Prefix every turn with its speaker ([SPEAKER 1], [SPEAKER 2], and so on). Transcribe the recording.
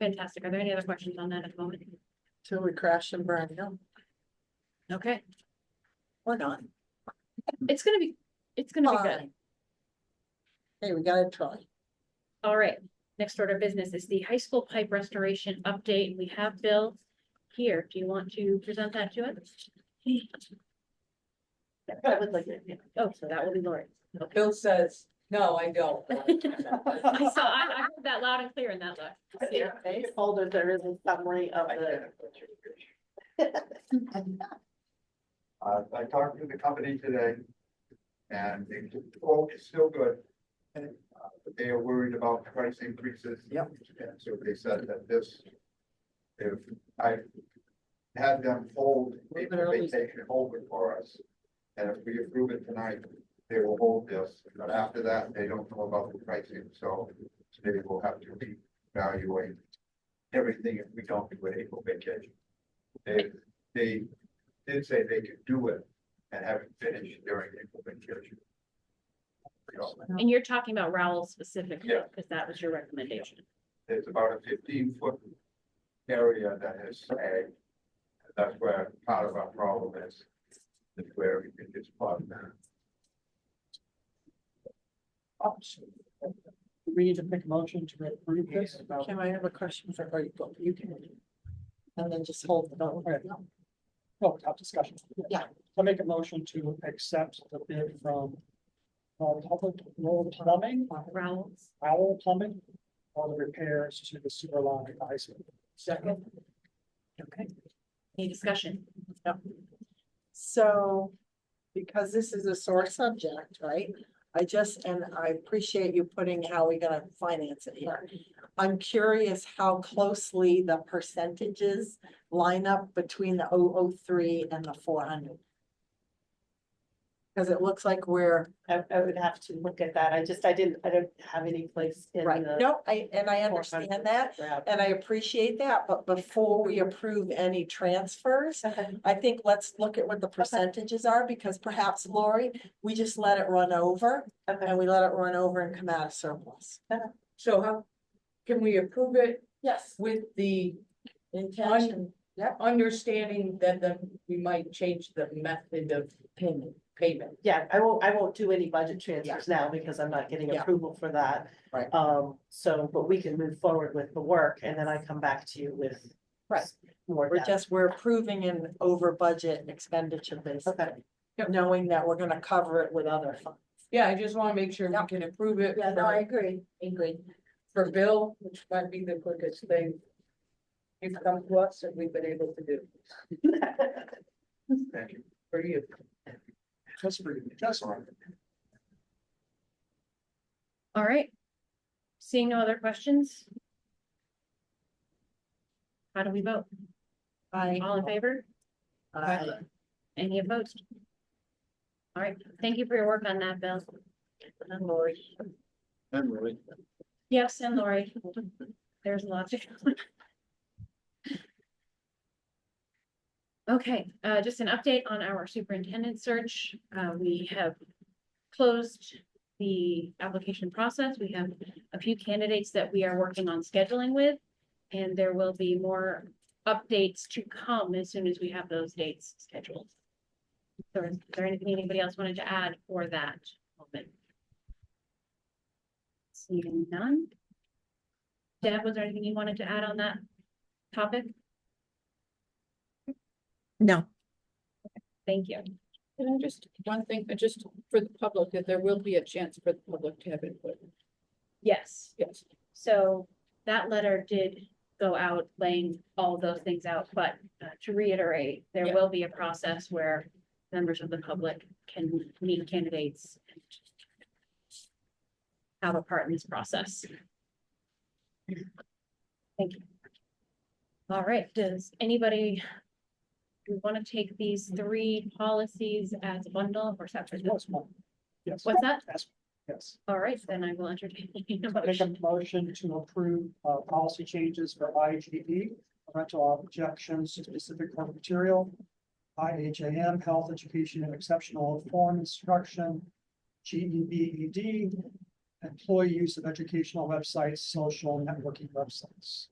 [SPEAKER 1] Fantastic. Are there any other questions on that at the moment?
[SPEAKER 2] Till we crash and burn, no,
[SPEAKER 1] Okay,
[SPEAKER 2] we're not.
[SPEAKER 1] it's gonna be, it's gonna be good.
[SPEAKER 2] Fine. Hey, we gotta try.
[SPEAKER 1] All right, next order of business is the high school pipe restoration update. We have Bill here. Do you want to present that to us? I would like to. Oh, so that will be Lori. Okay.
[SPEAKER 3] Bill says, no, I don't.
[SPEAKER 1] I saw, I, I heard that loud and clear in that look.
[SPEAKER 4] folder, there is a summary of the
[SPEAKER 5] Uh, I talked to the company today and they, the quote is still good. And uh, but they are worried about price increases. Yep. And so they said that this, if I had them hold, they
[SPEAKER 2] Literally.
[SPEAKER 5] they can hold it for us. And if we approve it tonight, they will hold this, but after that, they don't know about the pricing, so they will have to reevaluate everything if we don't do an April vacation. They, they did say they could do it and have it finished during April vacation. So,
[SPEAKER 1] And you're talking about Rowell specifically,
[SPEAKER 5] Yeah.
[SPEAKER 1] because that was your recommendation.
[SPEAKER 5] There's about a fifteen foot area that is snagged. That's where part of our problem is, is where we can just plug that.
[SPEAKER 4] We need to make a motion to approve this.
[SPEAKER 2] Kim, I have a question for or you. go- You can. And then just hold the vote.
[SPEAKER 4] No, without discussion.
[SPEAKER 2] Yeah.
[SPEAKER 4] I make a motion to accept the bid from uh, Public Road Plumbing,
[SPEAKER 1] Rowell's.
[SPEAKER 4] Owl Plumbing, on the repairs to the sewer line at the high school. Second.
[SPEAKER 2] Okay.
[SPEAKER 1] Any discussion?
[SPEAKER 2] So, because this is a sore subject, right? I just, and I appreciate you putting how we gonna finance it here. I'm curious how closely the percentages line up between the 003 and the four hundred. Cause it looks like we're,
[SPEAKER 6] I, I would have to look at that. I just, I didn't, I don't have any place in
[SPEAKER 2] right,
[SPEAKER 6] the.
[SPEAKER 2] no, I, and I understand that,
[SPEAKER 6] graph.
[SPEAKER 2] and I appreciate that, but before we
[SPEAKER 6] Mm-hmm.
[SPEAKER 2] approve any transfers, I think let's look at what the percentages are, because perhaps Lori, we just let it run over.
[SPEAKER 6] Okay.
[SPEAKER 2] And we let it run over and come out of surplus.
[SPEAKER 3] So how, can we approve it
[SPEAKER 2] Yes.
[SPEAKER 3] with the
[SPEAKER 2] Intention
[SPEAKER 3] understanding that the, we might change the method of
[SPEAKER 2] payment.
[SPEAKER 3] payment?
[SPEAKER 6] Yeah, I won't, I won't do any budget transfers now because I'm not getting
[SPEAKER 2] Yeah.
[SPEAKER 6] approval for that.
[SPEAKER 2] Right.
[SPEAKER 6] Um, so, but we can move forward with the work and then I come back to you with.
[SPEAKER 2] Right.
[SPEAKER 6] More
[SPEAKER 2] We're
[SPEAKER 6] data.
[SPEAKER 2] just, we're approving an over budget expenditure basically,
[SPEAKER 6] Okay,
[SPEAKER 2] knowing that we're gonna cover it with other funds.
[SPEAKER 3] Yeah, I just wanna make sure
[SPEAKER 2] Yeah.
[SPEAKER 3] we can approve it for-
[SPEAKER 2] agree, agree.
[SPEAKER 3] for Bill, which might be the quickest thing. You've come to us and we've been able to do
[SPEAKER 5] Thank you.
[SPEAKER 3] for you.
[SPEAKER 4] Just for, just for.
[SPEAKER 1] All right. Seeing no other questions? How do we vote?
[SPEAKER 2] I.
[SPEAKER 1] All in favor?
[SPEAKER 2] I-
[SPEAKER 1] Any opposed? All right, thank you for your work on that, Bill.
[SPEAKER 2] I'm Lori.
[SPEAKER 5] And really.
[SPEAKER 1] Yes, and Lori. There's lots of. Okay, uh, just an update on our superintendent search. Uh, we have closed the application process. We have a few candidates that we are working on scheduling with. And there will be more updates to come as soon as we have those dates scheduled. So is there anything anybody else wanted to add for that moment? Seeing none. Deb, was there anything you wanted to add on that topic?
[SPEAKER 7] No.
[SPEAKER 1] Thank you.
[SPEAKER 8] Can I just, one thing, uh, just for the public, that there will be a chance for the public to have input,
[SPEAKER 1] Yes,
[SPEAKER 8] yes.
[SPEAKER 1] so that letter did go out laying all those things out, but uh, to reiterate, there
[SPEAKER 8] Yeah.
[SPEAKER 1] will be a process where members of the public can meet candidates and have a part in this process. Thank you. All right, does anybody we want to take these three policies as a bundle or separate?
[SPEAKER 4] Yes,
[SPEAKER 1] What's that?
[SPEAKER 4] yes.
[SPEAKER 1] All right, then I will entertain a
[SPEAKER 4] Make a
[SPEAKER 1] motion.
[SPEAKER 4] motion to approve uh policy changes for I G E, rental objections to specific work material. I H A M, health education and exceptional form instruction. G E B E D, employee use of educational websites, social networking websites.